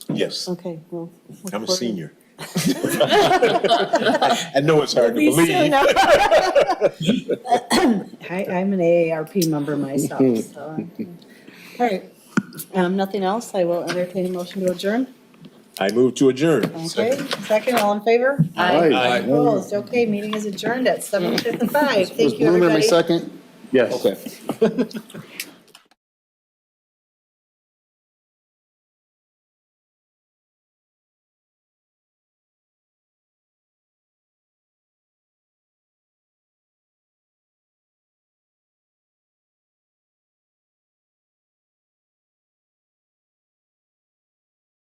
Yes, Okay, well. look I'm a forward- senior. I know it's hard to Be believe. soon. I, I'm an AARP member myself, so. I'm- All right, um, nothing else, I will entertain a motion to adjourn. I move to adjourn. Okay, second, all in favor? Aye. Opposed, okay, meeting is adjourned at seven fifty-five, Was thank you, Bloomer my everybody. second? Yes. Okay.